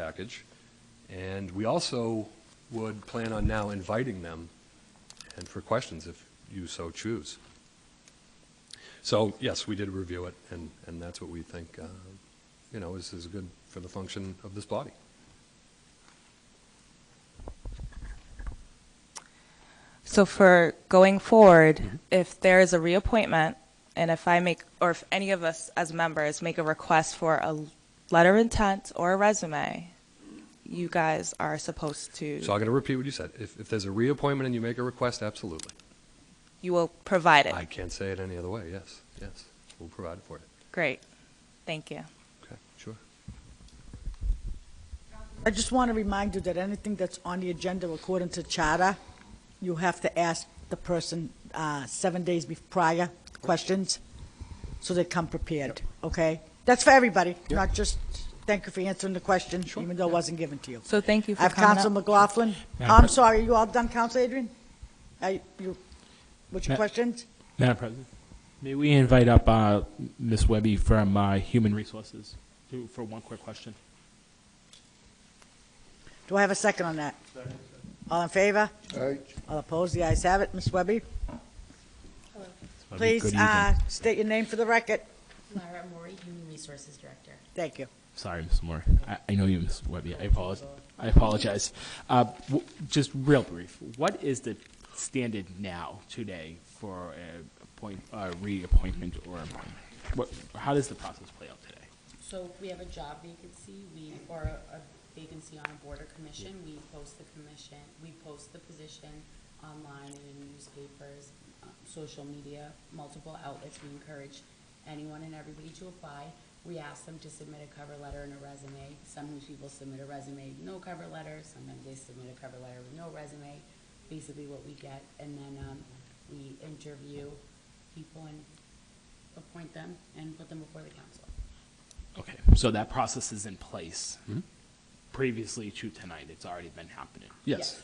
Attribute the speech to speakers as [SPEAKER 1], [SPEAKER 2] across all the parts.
[SPEAKER 1] package. And we also would plan on now inviting them and for questions if you so choose. So, yes, we did review it, and, and that's what we think, uh, you know, is, is good for the function of this body.
[SPEAKER 2] So for going forward, if there is a reappointment, and if I make, or if any of us as members make a request for a letter of intent or a resume, you guys are supposed
[SPEAKER 1] So I'm
[SPEAKER 2] to,
[SPEAKER 1] going to repeat what you said. If, if there's a reappointment and you make a request, absolutely.
[SPEAKER 2] you will provide it.
[SPEAKER 1] I can't say it any other way, yes, yes. We'll provide for it.
[SPEAKER 2] Great. Thank you.
[SPEAKER 1] Okay, sure.
[SPEAKER 3] I just want to remind you that anything that's on the agenda according to charter, you have to ask the person uh, seven days bef- prior questions, so they come prepared, okay? That's for everybody, not just, thank you for answering the question, even though it wasn't given to you.
[SPEAKER 2] So thank you
[SPEAKER 3] I
[SPEAKER 2] for
[SPEAKER 3] have
[SPEAKER 2] coming
[SPEAKER 3] Counsel
[SPEAKER 2] up.
[SPEAKER 3] McLaughlin.
[SPEAKER 4] Madam
[SPEAKER 3] I'm
[SPEAKER 4] Pres-
[SPEAKER 3] sorry, you all done, Counsel Adrian? Are you, what's your
[SPEAKER 4] Ma-
[SPEAKER 3] questions?
[SPEAKER 4] Madam President, may we invite up uh, Ms. Webby from uh, Human Resources to- for one quick question?
[SPEAKER 3] Do I have a second on that? All in favor?
[SPEAKER 5] Aye.
[SPEAKER 3] All opposed? The ayes have it. Ms. Webby? Please,
[SPEAKER 4] Good
[SPEAKER 3] uh,
[SPEAKER 4] evening.
[SPEAKER 3] state your name for the record.
[SPEAKER 6] Lara Mori, Human Resources Director.
[SPEAKER 3] Thank you.
[SPEAKER 4] Sorry, Ms. Moore. I- I know you, Ms. Webby. I apologize. I apologize. Uh, w- Just real brief, what is the standard now, today, for a appoint- a reappointment or appointment? What- How does the process play out today?
[SPEAKER 6] So we have a job vacancy, we, or a a vacancy on a board or commission, we post the commission, we post the position online and in newspapers, uh, social media, multiple outlets. We encourage anyone and everybody to apply. We ask them to submit a cover letter and a resume. Sometimes people submit a resume, no cover letter, sometimes they submit a cover letter with no resume, basically what we get. And then, um, we interview people and appoint them and put them before the council.
[SPEAKER 4] Okay, Mm-hmm. so that process is in place previously to tonight. It's already been happening.
[SPEAKER 1] Yes.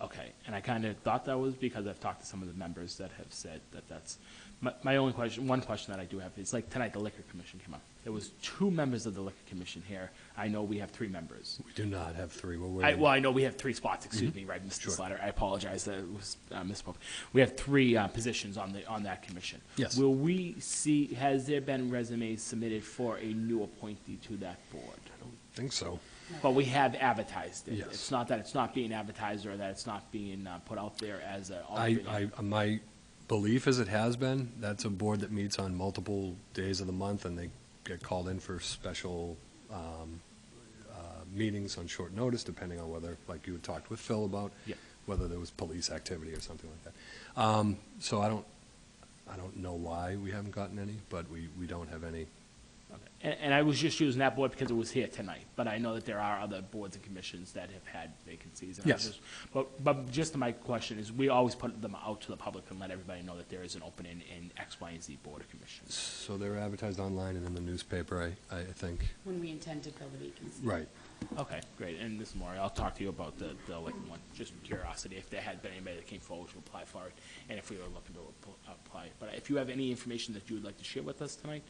[SPEAKER 4] Okay, and I kind of thought that was because I've talked to some of the members that have said that that's, my, my only question, one question that I do have is, like, tonight the liquor commission came up. There was two members of the liquor commission here. I know we have three members.
[SPEAKER 1] We do not have three, we're
[SPEAKER 4] I,
[SPEAKER 1] waiting.
[SPEAKER 4] well, I know we have three spots, excuse me, right, Mr. Slatter, I apologize, that was, uh, misspoke. We have three, uh, positions on the, on that commission.
[SPEAKER 1] Yes.
[SPEAKER 4] Will we see, has there been resumes submitted for a new appointee to that board?
[SPEAKER 1] Think so.
[SPEAKER 4] But we have advertised it.
[SPEAKER 1] Yes.
[SPEAKER 4] It's not that it's not being advertised or that it's not being uh, put out there as a alternate.
[SPEAKER 1] I, I, my belief is it has been, that's a board that meets on multiple days of the month, and they get called in for special um, uh, meetings on short notice, depending on whether, like you had talked with Phil about,
[SPEAKER 4] Yeah.
[SPEAKER 1] whether there was police activity or something like that. Um, So I don't, I don't know why we haven't gotten any, but we, we don't have any.
[SPEAKER 4] And, and I was just using that board because it was here tonight, but I know that there are other boards and commissions that have had vacancies. and I was
[SPEAKER 1] Yes.
[SPEAKER 4] just- But, but just my question is, we always put them out to the public and let everybody know that there is an opening in X, Y, and Z board of commissions.
[SPEAKER 1] So they're advertised online and in the newspaper, I, I think.
[SPEAKER 6] When we intend to fill the vacancy.
[SPEAKER 1] Right.
[SPEAKER 4] Okay, great. And Ms. Maury, I'll talk to you about the, the like one, just curiosity, if there had been anybody that came forward to apply for it, and if we were looking to ap- apply. But if you have any information that you would like to share with us tonight,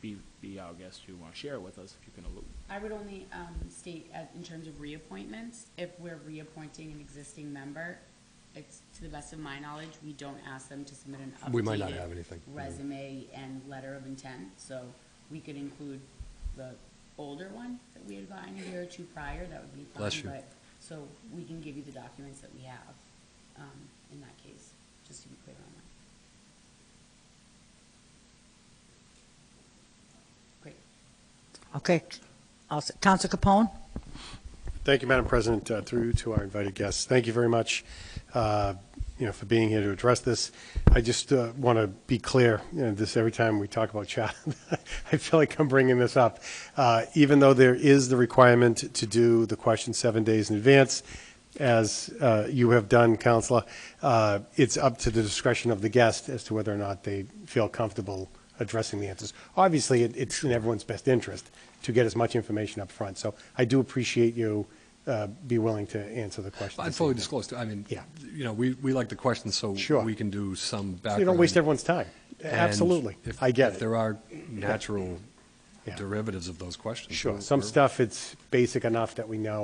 [SPEAKER 4] be, be our guest, you want to share it with us, if you can allude.
[SPEAKER 6] I would only um, state as- in terms of reappointments, if we're reappointing an existing member, it's, to the best of my knowledge, we don't ask them to submit an updated.
[SPEAKER 1] We might not have anything. Mm-hmm.
[SPEAKER 6] Resume and letter of intent, so we could include the older one that we had gotten a year or two prior, that would be fine.
[SPEAKER 1] Bless you.
[SPEAKER 6] but- So we can give you the documents that we have um, in that case, just to be clear on that. Great.
[SPEAKER 3] Okay. I'll s- Counsel Capone?
[SPEAKER 5] Thank you, Madam President, uh, through to our invited guests. Thank you very much, uh, you know, for being here to address this. I just want to be clear, you know, this, every time we talk about chat, I feel like I'm bringing this up. Uh, Even though there is the requirement to do the question seven days in advance, as uh, you have done, Counselor, uh, it's up to the discretion of the guest as to whether or not they feel comfortable addressing the answers. Obviously, it- it's in everyone's best interest to get as much information up front. So I do appreciate you uh, be willing to answer the question.
[SPEAKER 1] I'd
[SPEAKER 5] this
[SPEAKER 1] fully
[SPEAKER 5] evening.
[SPEAKER 1] disclose, too. I mean,
[SPEAKER 5] Yeah.
[SPEAKER 1] you know, we, we like the questions, so
[SPEAKER 5] Sure.
[SPEAKER 1] we can do some
[SPEAKER 5] So
[SPEAKER 1] background.
[SPEAKER 5] You don't waste everyone's time.
[SPEAKER 1] And
[SPEAKER 5] Absolutely.
[SPEAKER 1] if-
[SPEAKER 5] I get
[SPEAKER 1] If
[SPEAKER 5] it.
[SPEAKER 1] there are natural
[SPEAKER 5] Yeah.
[SPEAKER 1] derivatives of those questions.
[SPEAKER 5] Sure,
[SPEAKER 1] We're-
[SPEAKER 5] some
[SPEAKER 1] we're-
[SPEAKER 5] stuff, it's basic enough that we know